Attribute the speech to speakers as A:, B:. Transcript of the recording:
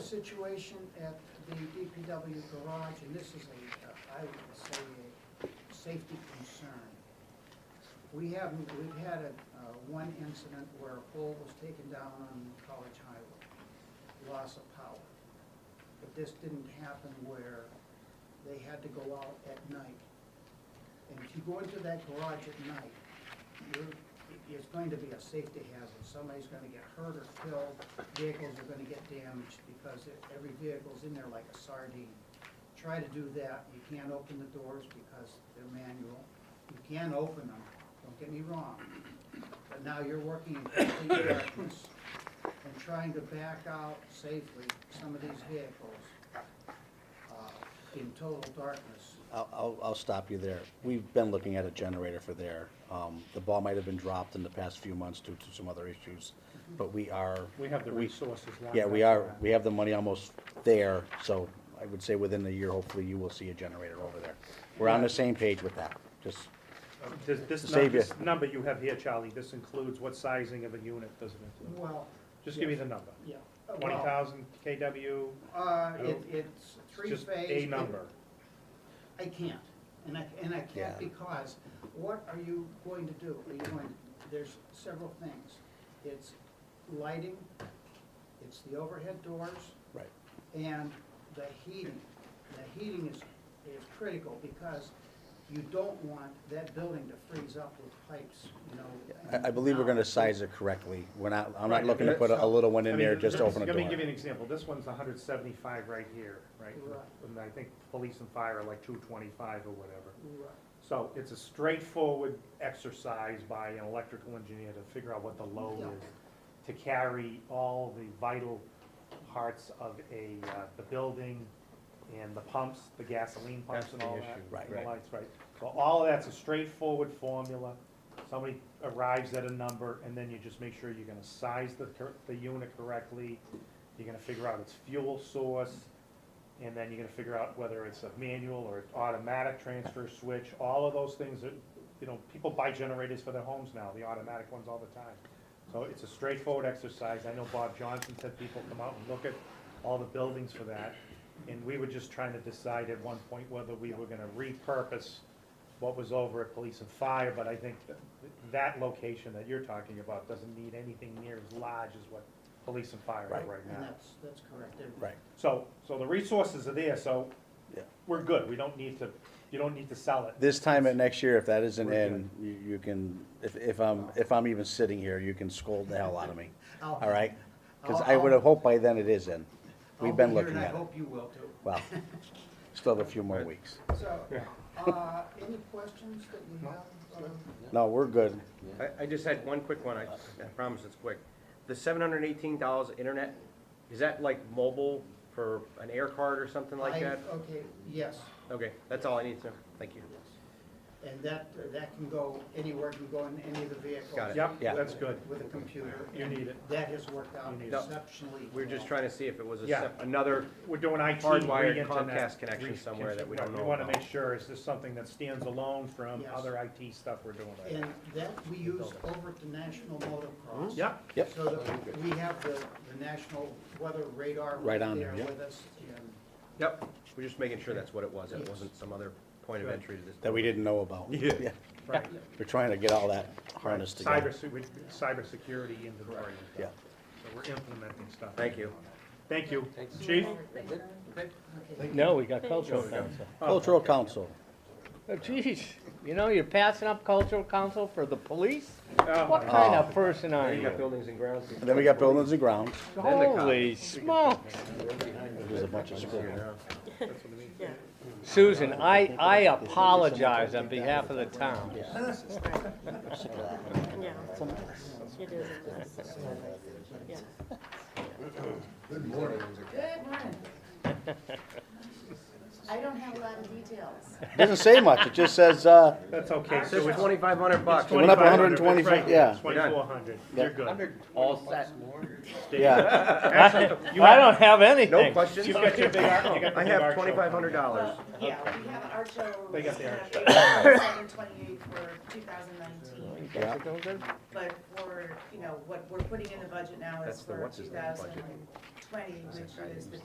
A: situation at the DPW garage, and this is a, uh, I would say, a safety concern. We have, we've had a, uh, one incident where a pole was taken down on College Highway, loss of power. But this didn't happen where they had to go out at night. And if you go into that garage at night, you're, it's going to be a safety hazard. Somebody's gonna get hurt or killed, vehicles are gonna get damaged because every vehicle's in there like a sardine. Try to do that. You can't open the doors because they're manual. You can open them, don't get me wrong. But now you're working in complete darkness and trying to back out safely some of these vehicles uh, in total darkness.
B: I'll, I'll, I'll stop you there. We've been looking at a generator for there. Um, the ball might have been dropped in the past few months due to some other issues, but we are.
C: We have the
B: we-
C: resources lined
B: Yeah, we
C: up for
B: are,
C: that.
B: we have the money almost there, so I would say within the year, hopefully you will see a generator over there. We're on the same page with that, just,
C: Does Um, this, num-
B: Save you.
C: this number you have here, Charlie, this includes what sizing of a unit, doesn't include?
A: Well,
C: Just give me the number.
A: yeah. uh, well,
C: Twenty thousand KW,
A: Uh, it, it's three
C: just
A: phase.
C: a number.
A: I can't, and I, and I
B: Yeah.
A: can't because what are you going to do? Are you going, there's several things. It's lighting, it's the overhead doors,
B: right.
A: and the heating. The heating is, is critical because you don't want that building to freeze up with pipes, you know.
B: I, I believe we're gonna
A: now.
B: size it correctly. We're not, I'm not
C: Right,
B: looking to put a, a little one
C: I
B: in
C: mean,
B: there just to
C: this-
B: open a
C: Let me give you
B: door.
C: an example, this one's hundred seventy-five right here, right?
A: Right.
C: And I think police and fire are like two twenty-five or whatever.
A: Right.
C: So it's a straightforward exercise by an electrical engineer to figure out what the load
A: Yeah.
C: is, to carry all the vital parts of a, uh, the building and the pumps, the gasoline pumps
D: That's
C: and
D: the
C: all
D: issue,
C: that. and
B: right.
C: the
D: Right.
C: lights, right. So all of that's a straightforward formula. Somebody arrives at a number, and then you just make sure you're gonna size the, cor- the unit correctly. You're gonna figure out its fuel source, and then you're gonna figure out whether it's a manual or an automatic transfer switch. All of those things that, you know, people buy generators for their homes now, the automatic ones all the time. So it's a straightforward exercise. I know Bob Johnson said people come out and look at all the buildings for that. And we were just trying to decide at one point whether we were gonna repurpose what was over at Police and Fire, but I think that, that location that you're talking about doesn't need anything near as large as what Police and Fire are
B: Right.
C: right
A: And
C: now.
A: that's, that's correct. They're-
B: Right,
C: So, so the resources are there, so
B: yeah.
C: we're good. We don't need to, you don't need to sell it.
B: This time at next year, if that isn't
C: We're
B: in, you, you can, if, if I'm, if I'm even sitting here, you can scold the hell out of me,
A: I'll-
B: all right? Because
A: I'll-
B: I would
A: I'll-
B: have hoped by then it is in.
A: I'll
B: We've
A: be
B: been
A: here,
B: looking
A: And
B: at
A: I
B: it.
A: hope you will too.
B: Well, still have a few more weeks.
A: So,
C: Yeah.
A: uh, any questions that you have? Um,
B: No, we're good.
D: I, I just had one quick one, I, I promise it's quick. The seven hundred and eighteen dollars internet, is that like mobile for an air card or something
A: I-
D: like that?
A: Okay, yes,
D: Okay, that's all I need to, know. thank you.
A: and that, that can go anywhere, can go in any of the vehicles.
D: Got it.
C: Yep,
B: Yeah.
C: that's good.
A: With a computer.
C: You need it.
A: That has worked out
C: You need
D: it.
A: exceptionally well.
D: We were just trying to see if it was a
C: Yeah.
D: sep- another,
C: We're doing IT.
D: Hardwired
C: re-internet,
D: Comcast connection
C: re-
D: somewhere that we
C: right,
D: don't
C: We
D: know
C: wanna
D: about.
C: make sure, is this something that stands alone from
A: Yes.
C: other IT stuff we're doing right now?
A: And that we use over at the National Motocross.
C: Yep,
B: Yep.
A: So that we have the, the national weather radar
B: Right
A: right
B: on
A: there
B: there, yep.
A: with us. and-
D: yep, we're just making sure that's what it was, it
A: Yes.
D: wasn't some other point of
C: Good.
D: entry to this.
B: That we didn't know about.
D: Yeah.
C: right.
B: We're trying to get all that harnessed
C: Cyber,
B: together.
C: se- we- cybersecurity inventory. and stuff.
B: Yeah.
C: So we're implementing stuff.
D: Thank you.
C: Thank you. Chief?
E: No, we got cultural council.
B: Cultural Council.
E: Oh, geez, you know, you're passing up cultural council for the police?
C: Oh,
E: What
C: my-
E: kind of person are
D: You got
E: you?
D: buildings and grounds.
B: And then we got buildings and grounds.
E: Holy smokes.
B: There's a bunch of scribbles.
E: Susan, I, I apologize on behalf of the town.
F: Yeah. It is a mess. Yeah.
G: Good morning. I don't have a lot of details.
B: Doesn't say much, it just says, uh,
C: That's okay,
D: So
C: so
D: it's
C: it's
D: twenty-five hundred bucks.
B: went up
C: 2,500,
B: 125
C: right,
B: yeah.
C: Twenty-four hundred,
B: Yeah.
C: you're good.
D: All set.
B: yeah,
E: I don't have
D: No
E: anything.
D: questions?
C: You've got your big, ar- you got the
D: I
C: big
D: have
C: arch over.
D: twenty-five hundred dollars.
G: Yeah, we have our show.
C: They got the arch.
G: Seven twenty-eight for two thousand nineteen,
B: yeah.
G: but for, you know, what we're putting in the budget now
D: That's
G: is
D: the
G: for two
D: what's-his-name
G: thousand
D: budget.
G: twenty, which is the